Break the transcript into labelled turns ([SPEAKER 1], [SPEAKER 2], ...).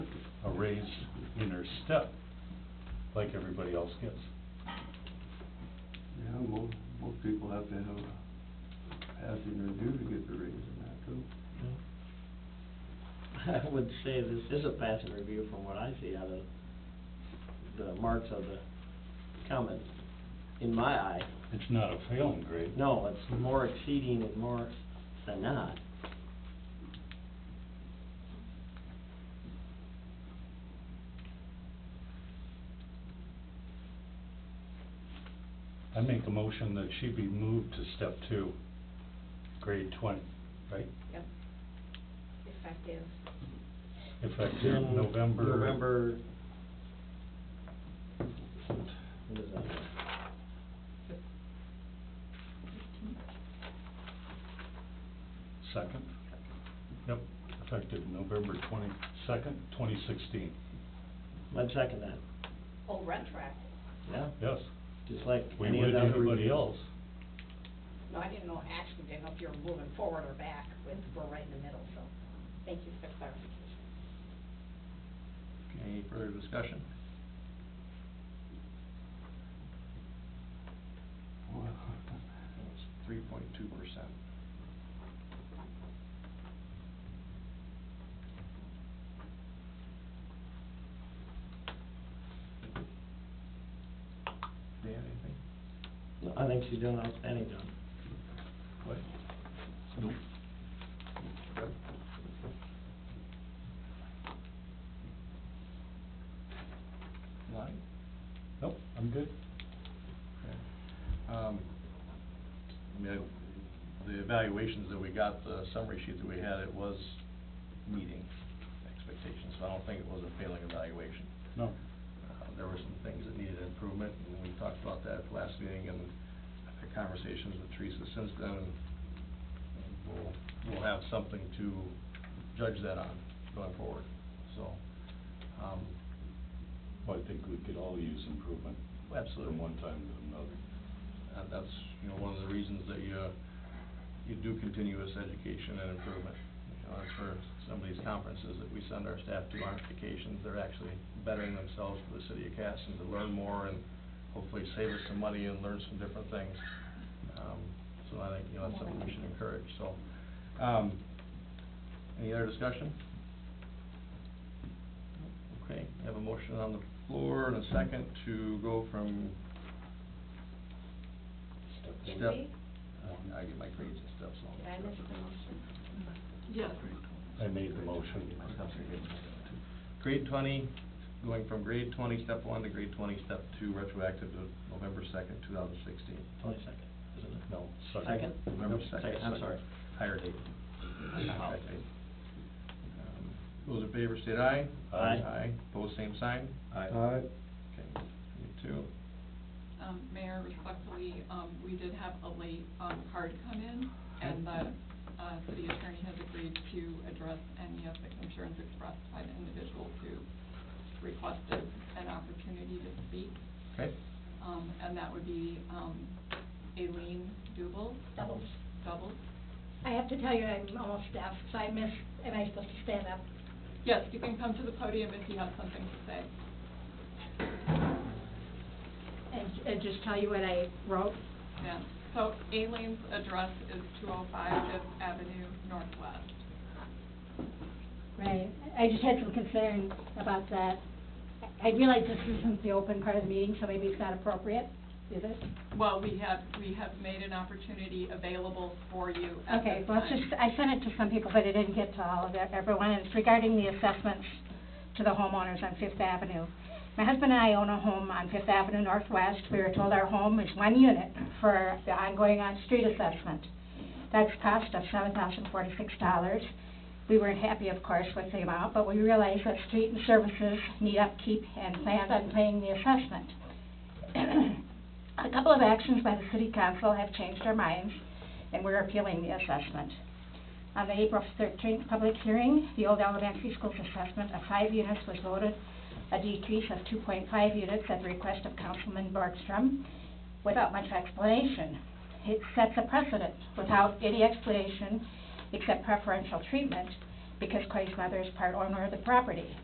[SPEAKER 1] raise in her step, like everybody else gets.
[SPEAKER 2] Yeah, most, most people have to have a passing review to get the raise in that too.
[SPEAKER 3] I would say this is a passing review from what I see out of the marks of the comment, in my eye.
[SPEAKER 1] It's not a failing grade.
[SPEAKER 3] No, it's more exceeding and more than not.
[SPEAKER 1] I make a motion that she be moved to step two, grade twenty, right?
[SPEAKER 4] Yep. Effective.
[SPEAKER 1] Effective November.
[SPEAKER 3] Mm-hmm. November. What is that?
[SPEAKER 1] Second? Yep, effective November twenty-second, twenty sixteen.
[SPEAKER 3] I'd second that,
[SPEAKER 4] Oh, retroactive.
[SPEAKER 3] yeah,
[SPEAKER 1] Yes,
[SPEAKER 3] just like
[SPEAKER 1] we
[SPEAKER 3] any of
[SPEAKER 1] would
[SPEAKER 3] the other
[SPEAKER 1] anybody
[SPEAKER 3] reviews.
[SPEAKER 1] else.
[SPEAKER 4] No, I didn't know actually, didn't know if you were moving forward or back, but we're right in the middle, so thank you for the clarification.
[SPEAKER 5] Any further discussion?
[SPEAKER 2] Well,
[SPEAKER 5] It's three point two percent. Dan, anything?
[SPEAKER 3] No, I think she's doing an outstanding job.
[SPEAKER 5] What?
[SPEAKER 1] Nope.
[SPEAKER 5] Lonnie?
[SPEAKER 1] Nope, I'm good.
[SPEAKER 5] Um, I mean, the evaluations that we got, the summary sheet that we had, it was meeting expectations, so I don't think it was a failing evaluation.
[SPEAKER 1] No,
[SPEAKER 5] Uh, There were some things that needed improvement, and we talked about that at the last meeting, and I've had conversations with Teresa since then. and We'll, we'll have something to judge that on going forward, so, um,
[SPEAKER 1] well, I think we could all use improvement
[SPEAKER 5] absolutely.
[SPEAKER 1] from one time to another.
[SPEAKER 5] And Uh, that's, you know, one of the reasons that you, uh, you do continuous education and improvement. You know, that's for some of these conferences that we send our staff to on vacations, they're actually bettering themselves for the city of Casson to learn more and hopefully save us some money and learn some different things. Um, so I think, you know, that's something we should encourage, so. Um, any other discussion? Okay, I have a motion on the floor and a second to go from
[SPEAKER 4] Did
[SPEAKER 5] Step-
[SPEAKER 4] we?
[SPEAKER 1] Uh,
[SPEAKER 5] Oh, I get my grades and stuff, so.
[SPEAKER 4] Did I miss the motion?
[SPEAKER 6] Yes.
[SPEAKER 1] I made the motion.
[SPEAKER 5] Grade twenty, going from grade twenty, step one, to grade twenty, step two, retroactive to November second, two thousand sixteen.
[SPEAKER 3] Twenty second, isn't it?
[SPEAKER 1] No, second.
[SPEAKER 3] Second?
[SPEAKER 5] November second.
[SPEAKER 3] Second, I'm sorry.
[SPEAKER 5] Higher date.
[SPEAKER 3] Apologies.
[SPEAKER 5] Um, Those in favor state aye.
[SPEAKER 1] Aye.
[SPEAKER 5] Aye, pose same sign.
[SPEAKER 2] Aye.
[SPEAKER 5] Okay, me too.
[SPEAKER 6] Um, Mayor, respectfully, um, we did have a late, um, card come in, and the, uh, city attorney has agreed to address any of the concerns expressed by the individuals who requested an opportunity to speak.
[SPEAKER 5] Okay,
[SPEAKER 6] Um, and that would be, um, Aileen Duble,
[SPEAKER 7] Doubles.
[SPEAKER 6] double.
[SPEAKER 7] I have to tell you, I'm almost deaf, so I missed, am I supposed to stand up?
[SPEAKER 6] Yes, you can come to the podium if you have something to say.
[SPEAKER 7] And, and just tell you what I wrote?
[SPEAKER 6] Yeah, so Aileen's address is two oh five Fifth Avenue Northwest.
[SPEAKER 7] Right, I just had some concern about that. I I realize this isn't the open part of the meeting, so maybe it's not appropriate, is it?
[SPEAKER 6] Well, we have, we have made an opportunity available for you at
[SPEAKER 7] Okay,
[SPEAKER 6] this
[SPEAKER 7] well, it's
[SPEAKER 6] time.
[SPEAKER 7] just, I sent it to some people, but it didn't get to all of it- everyone, and it's regarding the assessments to the homeowners on Fifth Avenue. My husband and I own a home on Fifth Avenue Northwest, we were told our home is one unit for the ongoing on-street assessment. That's cost us seven thousand forty-six dollars. We weren't happy, of course, with the amount, but we realized that street and services need upkeep and planned on paying the assessment. A couple of actions by the city council have changed our minds, and we're appealing the assessment. On the April thirteenth public hearing, the old elementary school's assessment of five units was voted a decrease of two point five units at the request of Councilman Borgstrom without much explanation. It sets a precedent without any explanation except preferential treatment because Clay's mother is part owner of the property.